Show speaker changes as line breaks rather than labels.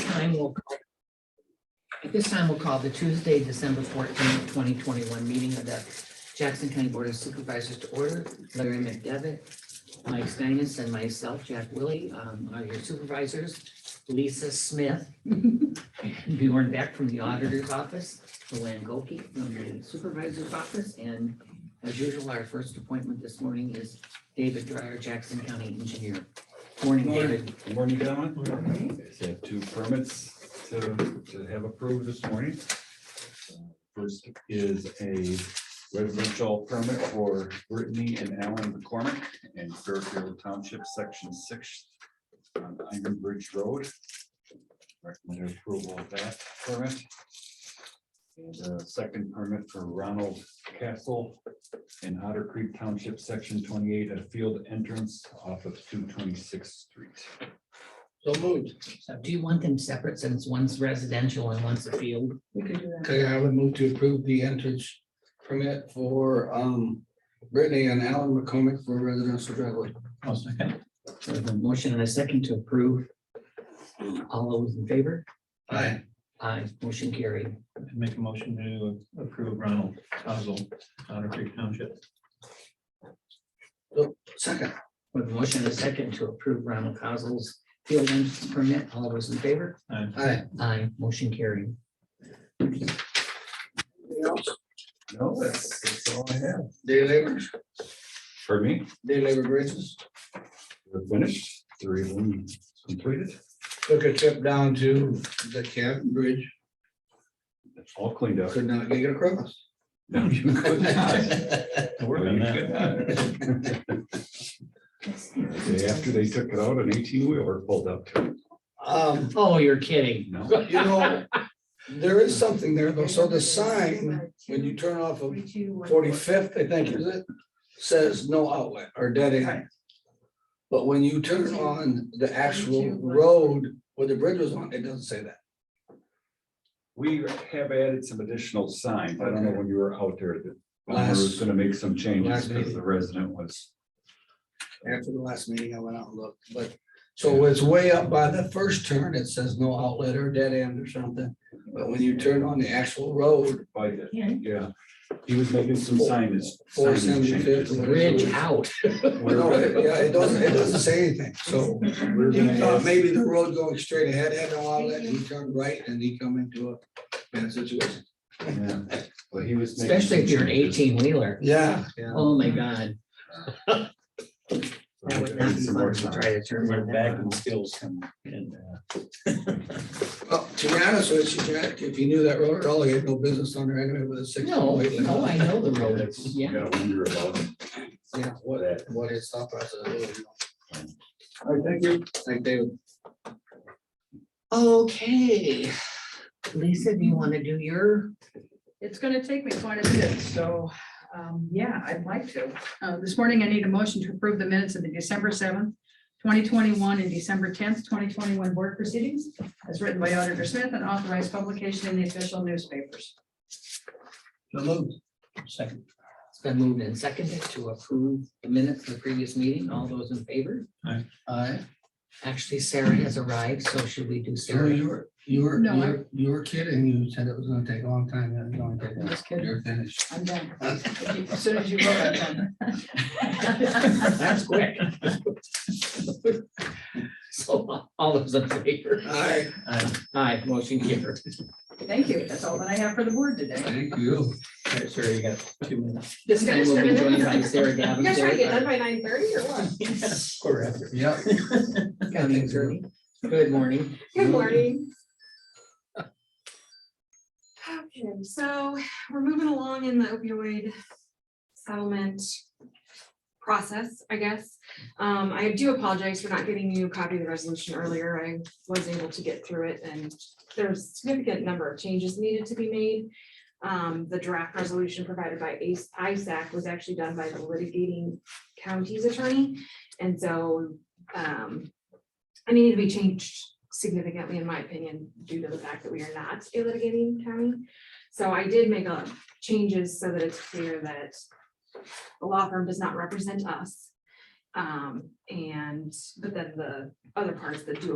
time, we'll call- at this time, we'll call the Tuesday, December fourteenth, twenty twenty-one meeting of the Jackson County Board of Supervisors to order. Larry McDevitt, Mike Steinis, and myself, Jack Willie, um, are your supervisors. Lisa Smith, Bjorn Beck from the Auditor's Office, Luann Goki from the Supervisor's Office, and as usual, our first appointment this morning is David Dryer, Jackson County Engineer. Morning,
Morning.
David.
Good morning, gentlemen. I have two permits to, to have approved this morning. First is a residential permit for Brittany and Alan McCormick in Fairfield Township, Section Six, on Iron Bridge Road. Recommend approval of that permit. And a second permit for Ronald Castle in Otter Creek Township, Section Twenty-eight, a field entrance off of two twenty-sixth street.
So moved.
So do you want them separate since one's residential and one's a field?
We could do that.
Okay, I would move to approve the entrance permit for um Brittany and Alan McCormick for residential driveway.
So the motion and a second to approve. All those in favor?
Aye.
Aye, motion carried.
Make a motion to approve Ronald Cosell, Otter Creek Township.
Second.
With motion and a second to approve Ronald Cosl's field entrance permit, all those in favor?
Aye.
Aye.
Aye, motion carried.
No, that's, that's all I have.
Day laborers,
For me,
day labor bridges.
we're finished, three of them completed,
Took a trip down to the Canton Bridge,
It's all cleaned up.
could not get it across.
No, you could not.
To
No,
work on
you
that.
could not. The Day after they took it out, an eighteen wheeler pulled up to it.
Um,
Oh, you're kidding.
No,
you know, there is something there, though, so the sign, when you turn off of forty-fifth, I think, is it? Says no outlet or dead end. But when you turn on the actual road where the bridge was on, it doesn't say that.
we have added some additional signs. I don't know when you were out there that Bomber was
Last,
gonna make some changes
last
because
meeting.
the resident was.
after the last meeting, I went out and looked, but, so it's way up by the first turn, it says no outlet or dead end or something. But when you turn on the actual road,
by the-
Yeah.
Yeah, he was making some signage.
Four
signage
75th.
changes.
Bridge out.
no, it- yeah, it doesn't, it doesn't say anything, so.
We're
He
gonna
thought
ask-
maybe the road going straight ahead had no outlet, and he turned right, and he come into a bad situation.
Yeah, But he was. making
Especially if you're an
some changes.
eighteen wheeler.
Yeah. Yeah.
Oh, my God.
So
That
we're
would not
gonna
be
do some
fun
more
to
signs.
try to turn
We're
one
back
back.
in skills come in.
Well, to be honest with you, Jack, if you knew that road at all, you had no business on there anyway with a six.
No, no, I know the road.
You
Yeah.
gotta wonder about it.
Yeah, what,
That.
what is thought process? I really don't know.
All right, thank you.
Like David,
Okay. Lisa, do you want to do your?
It's gonna take me quite a bit, so, um, yeah, I'd like to. Uh, this morning I need a motion to approve the minutes of the December seventh, twenty twenty-one and December tenth, twenty twenty-one board proceedings as written by Auditor Smith and authorized publication in the official newspapers.
the load.
Second.
It's been moved and seconded to approve the minutes of the previous meeting. All those in favor?
I,
Actually, Sarah has arrived, so should we do
Sarah,
Sarah?
you were, you were,
No,
you
I-
were- you were kidding, you said it was gonna take a long time, and it's only
I'm
taken-
just kidding.
you're finished.
I'm done. As soon as you go, I'm done.
That's quick. So all those in favor?
Hi,
Aye, motion carried.
Thank you. That's all that I have for the board today.
thank you.
Sure, you got two minutes.
This time we'll be joined by Sarah uh,
You guys trying to get done
Davenport.
by nine thirty or what?
Quarter after.
Yeah.
County attorney. Good morning.
Good morning. Okay, so we're moving along in the opioid settlement process, I guess. Um, I do apologize for not getting you a copy of the resolution earlier. I was able to get through it and there's a significant number of changes needed to be made. Um, the draft resolution provided by ACE, ISAC was actually done by the litigating county's attorney. And so, um, it needed to be changed significantly, in my opinion, due to the fact that we are not a litigating county. So I did make a changes so that it's clear that the law firm does not represent us. Um, and, but then the other parts that do